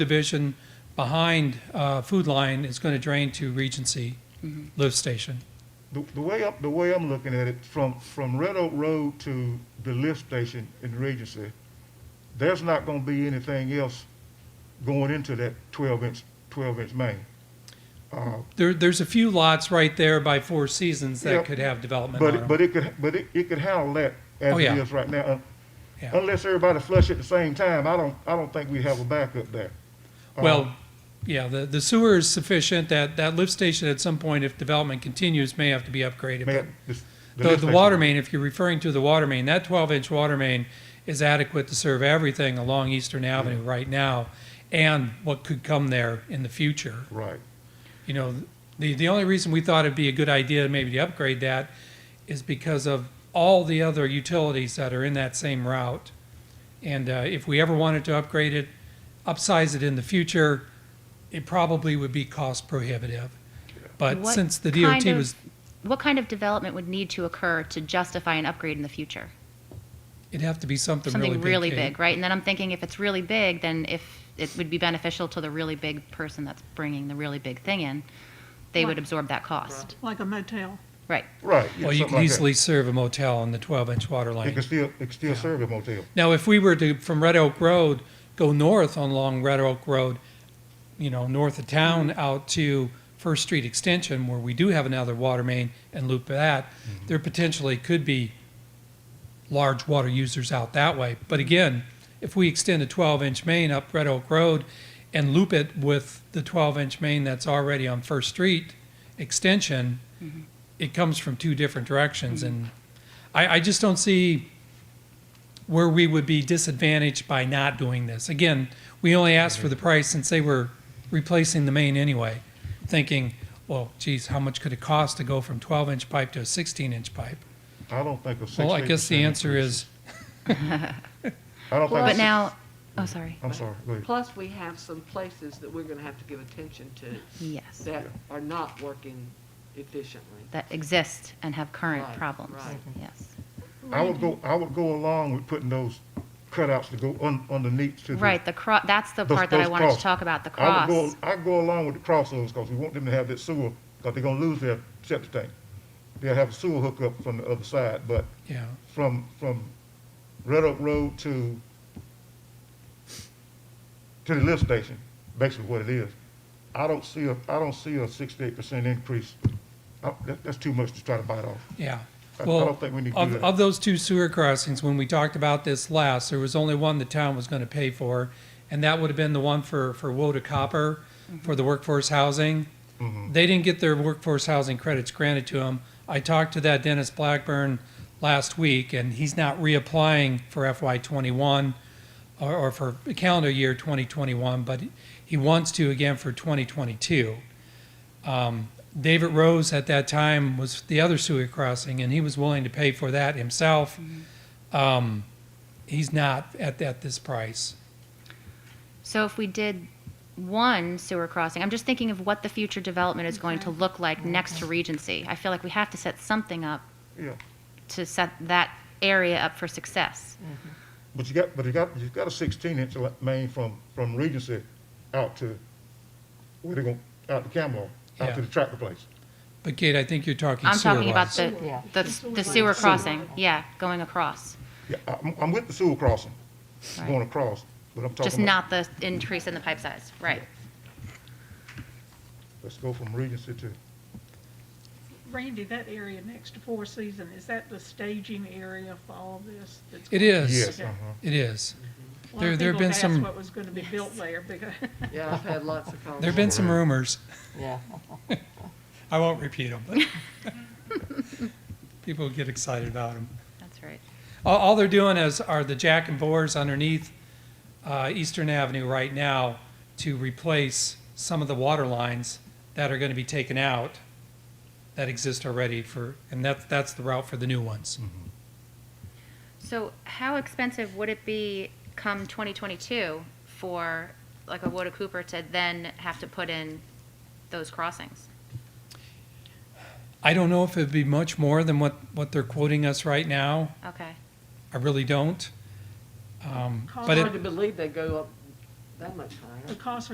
division behind uh, Food Line is going to drain to Regency Mm-hmm. Lift Station. The, the way I'm, the way I'm looking at it, from, from Red Oak Road to the lift station in Regency, there's not gonna be anything else going into that twelve inch, twelve inch main. There, there's a few lots right there by Four Seasons that Yep. could have development But, on it- them. but it could, but it, it could handle that as Oh, it yeah. is right now. Un- Yeah. Unless everybody flush at the same time, I don't, I don't think we have a backup there. Uh, uh-huh. Well, yeah, the, the sewer is sufficient, that, that lift station at some point, if development continues, may have to be upgraded. but- Man, this- The, lift the station- water main, if you're referring to the water main, that 12-inch water main is adequate to serve everything along Eastern Avenue Mm-hmm. right now and what could come there in the future. Right, You know, the, the only reason we thought it'd be a good idea maybe to upgrade that is because of all the other utilities that are in that same route. And uh, if we ever wanted to upgrade it, upsize it in the future, it probably would be cost prohibitive. But What since the kind DOT of- was, What kind of development would need to occur to justify an upgrade in the future? it'd have to be something really big. Something really Kate. big, right? And then I'm thinking if it's really big, then if it would be beneficial to the really big person that's bringing the really big thing in, they would Right. absorb that cost. like a motel. Right. right. yeah, Well, you something can like that. easily serve a motel on the 12-inch water It line. could still, it could still serve a motel. Now, if we were to, from Red Oak Road, go north on along Red Oak Road, you know, north of town out to First Street Extension, where we do have another water main, and loop that, there potentially could be large water users out that way. But again, if we extend a 12-inch main up Red Oak Road and loop it with the 12-inch main that's already on First Street Extension, it comes from two different directions, and I, I just don't see where we would be disadvantaged by not doing this. Again, we only asked for the price since they were replacing the main anyway, thinking, well, geez, how much could it cost to go from 12 inch pipe to a 16 inch pipe? I don't think a six. Well, I guess the 8% answer is I don't think. a But six- now, oh, sorry. I'm sorry, go ahead. Plus, we have some places that we're gonna have to give attention to Yes. that are not working efficiently. That exist and have current Right, problems. right. Yes. I would go, I would go along with putting those cutouts to go un, underneath to the. Right, the cro, that's the Mm-hmm. those- part that I those wanted to cross. talk about, the I cross. would go, I'd go along with the crossroads, because we want them to have that sewer, because they're gonna lose their septic tank. They'll have a sewer hookup from the other side, but yeah. from, from Red Oak Road to, to the lift station, basically what it is, I don't see a, I don't see a sixty-eight percent increase. I- that- that's too much to try to bite off. Yeah. I- I Well, don't think we need to of, do that. of those two sewer crossings, when we talked about this last, there was only one the town was going to pay for, and that would have been the one for, for Woda Copper for the workforce housing. They didn't get their workforce housing credits granted to them. I talked to that Dennis Blackburn last week, and he's not reapplying for FY21 or, or for calendar year 2021, but he wants to again for 2022. David Rose at that time was the other sewer crossing, and he was willing to pay for that himself. Um, he's not at, at this price. So if we did one sewer crossing, I'm just thinking of what the future development is going to look like next to Regency. I feel like we have to set something up Yeah, to set that area up for success. but you got, but you got, you got a sixteen-inch main from, from Regency out to, where they gonna, out to Camelot, out Yeah. to the tractor place. But Kate, I think you're talking I'm sewer talking about wise. the, the the sewer crossing, yeah, going across. Yeah, I'm, I'm with the sewer crossing, Right. going across, but I'm Just talking about, not the increase in the pipe size, right. let's go from Regency to, Randy, that area next to Four Season, is that the staging area for all of this? that's It going- is. yes, Okay. uh-huh. It is. A lot of There- there have been people have some- asked what was going to be built there because Yeah, I've had lots of There have been conversations. some rumors. Yeah. I won't repeat them, but people get excited about them. That's right. All, all they're doing is, are the jack and bores underneath uh, Eastern Avenue right now to replace some of the water lines that are going to be taken out that exist already for, and that's, that's the route for the new ones. So how expensive would it be come 2022 for like a Woda Cooper to then have to put in those crossings? I don't know if it'd be much more than what, what they're quoting us right now. Okay. I really don't. Um, Cost but of it, Hard to believe they go up that much higher. The cost